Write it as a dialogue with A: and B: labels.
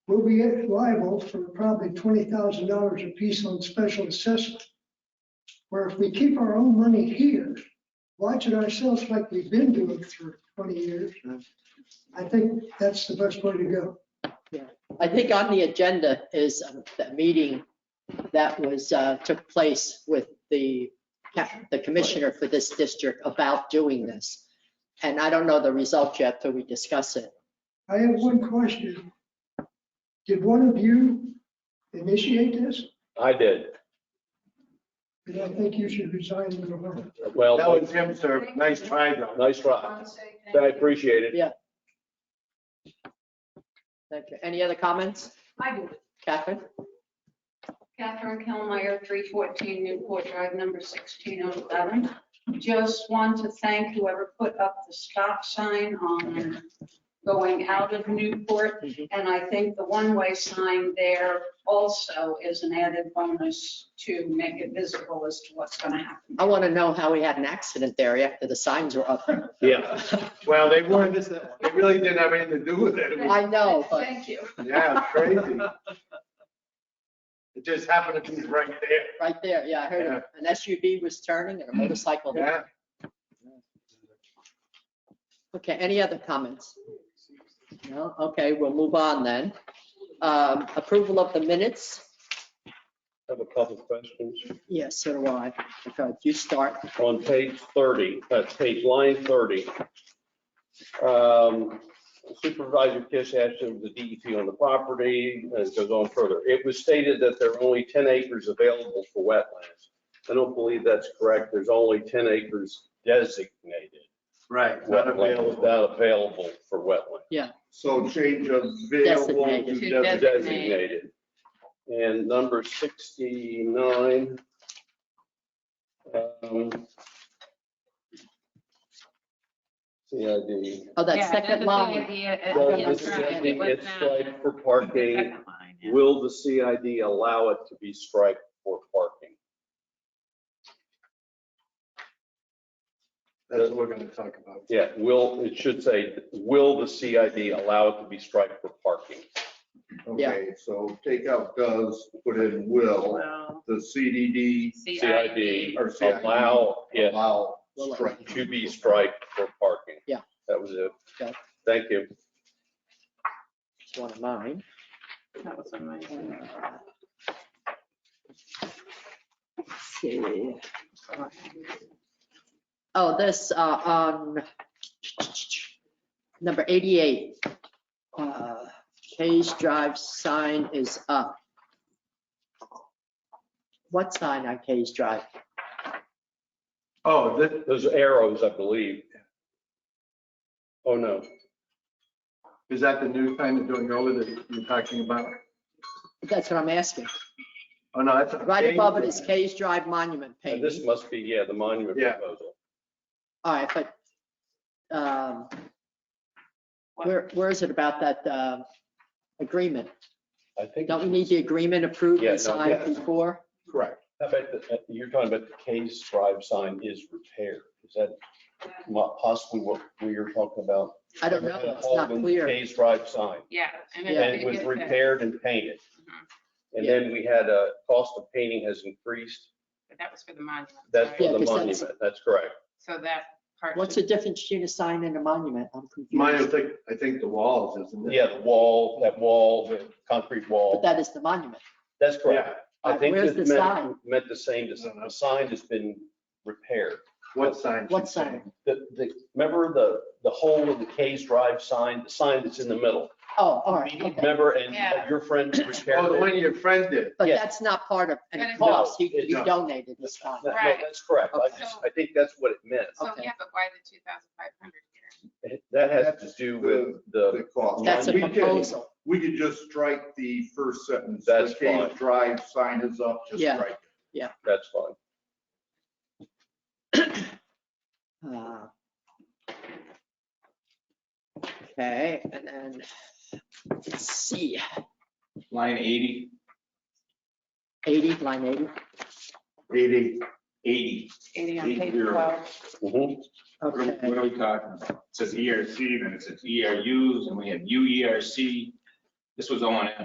A: will be liable for probably twenty thousand dollars apiece on special assessment. Where if we keep our own money here, watch it ourselves like we've been doing for twenty years, I think that's the best way to go.
B: I think on the agenda is um, that meeting that was, uh, took place with the, ca- the commissioner for this district about doing this. And I don't know the result yet till we discuss it.
A: I have one question. Did one of you initiate this?
C: I did.
A: And I think you should resign in November.
C: Well,
D: That was him, sir. Nice try, though.
C: nice try. I appreciate it.
B: Thank you. Any other comments,
E: I do.
B: Catherine?
E: Catherine Kilmeyer, 314 Newport Drive, number 1607. Just want to thank whoever put up the stop sign on going out of Newport.
B: Mhm.
E: And I think the one-way sign there also is an added bonus to make it visible as to what's going to happen.
B: I want to know how we had an accident there after the signs were up.
C: Yeah.
D: Well, they weren't, they really didn't have anything to do with it. It was-
B: I know, but
E: Thank you.
D: Yeah, it's crazy. It just happened to be right there.
B: right there, yeah, I heard
D: Yeah.
B: an SUV was turning and a motorcycle. hit.
D: Yeah.
B: Okay, any other comments? No, okay, we'll move on then. Um, Approval of the minutes?
C: Have a couple of questions.
B: Yes, so do I. Okay, you start.
C: On page 30, that's page line 30. um, Supervisor Kish asked him the DEP E on the property, and it goes on further. It was stated that there are only 10 acres available for wetlands. I don't believe that's correct. There's only 10 acres designated.
D: Right. Not
C: wetlands
D: available.
C: Not available for wetlands.
D: So change of available
B: Designated.
D: to designated.
C: designated. And number 69. um, CID.
B: Oh,
F: Yeah,
B: that second
F: that's
B: line.
F: the idea, uh,
C: Does
F: yeah,
C: the
F: that's right, it
C: CID
F: was
C: get
F: not-
C: striped for
F: the
C: parking?
F: second line, yeah.
C: Will the CID allow it to be striped for parking?
D: That's what we're going to talk about.
C: Yeah, will, it should say, will the CID allow it to be striped for parking?
G: Okay, so take out does, put in will,
F: Well,
G: the CDD
C: CID
G: or CID.
C: allow it
G: allow strike.
C: to be striped for parking.
B: Yeah.
C: That was it.
B: Okay.
C: Thank you.
B: It's One of mine.
F: That was on my.
B: Let's see. Oh, this, uh, on number 88. uh, Hayes Drive sign is up. What sign on Hayes Drive?
D: Oh, this,
C: Those arrows, I believe. Oh, no.
D: is that the new sign that's doing over that you're talking about?
B: That's what I'm asking.
D: Oh, no, that's.
B: Right above it is Hayes Drive Monument
C: And This
B: painting.
C: must be, yeah, the monument
D: Yeah.
C: proposal.
B: All right, but um, where, where is it about that uh, agreement?
C: I think,
B: Don't
C: I
B: we need the agreement approved
C: Yeah, no,
B: and signed
C: yeah.
B: before?
G: Correct.
C: bet that that- you're talking about the Kay's Drive sign is repaired. Is that mo- possibly what we are talking about?
B: I don't know,
C: Kay's
B: it's not clear.
C: Kay's Drive sign.
F: Yeah. and
B: Yeah.
C: And
F: it's-
C: it was repaired and painted.
F: Mhm.
C: And then we had a cost of painting has increased.
F: But That was for the monument.
C: That's
B: Yeah,
C: for the
B: 'cause that's-
C: monument. That's correct.
F: So that part.
B: What's the difference between a sign and a monument? I'm
D: Mine, I
B: confused.
D: think, I think the walls, isn't it?
C: Yeah, the wall, that wall, the concrete
B: But
C: wall.
B: that is the monument.
C: That's correct.
D: Yeah,
C: I think
B: Where's
C: it
B: the
C: meant,
B: sign?
C: meant the same, the sign has been repaired.
D: what sign?
B: What sign?
C: The, the, remember the, the whole of the K's Drive sign, the sign that's in the middle?
B: Oh, all right, okay.
C: Remember, and
F: Yeah.
C: your friend repaired
D: Oh, the
C: it?
D: one your friend did.
B: But
C: Yeah.
B: that's not part of
F: But
B: any
F: it's-
B: cost. He
C: No,
B: he
D: no.
B: donated this
C: No,
B: sign.
C: no,
F: Right.
C: that's correct. I just, I think that's what it meant.
F: So,
B: okay.
F: yeah, but why the 2,500 here?
C: That has to do with the,
G: The cost.
B: That's a
G: We could-
B: proposal.
G: We could just strike the first sentence.
C: That's
G: The Cave
C: fine.
G: Drive sign is up, just
B: Yeah.
G: strike.
C: that's fine.
B: Uh, Okay, and then, let's see,
H: Line 80,
B: 80, line 80.
D: Eighty.
H: 80.
E: 80 on
H: Eight
E: page
H: zero.
E: 12.
C: Mhm.
H: What are
B: Okay,
H: what are we talking about? E It says ERC, then it says ERUs, and we have UERC. E This was O and M.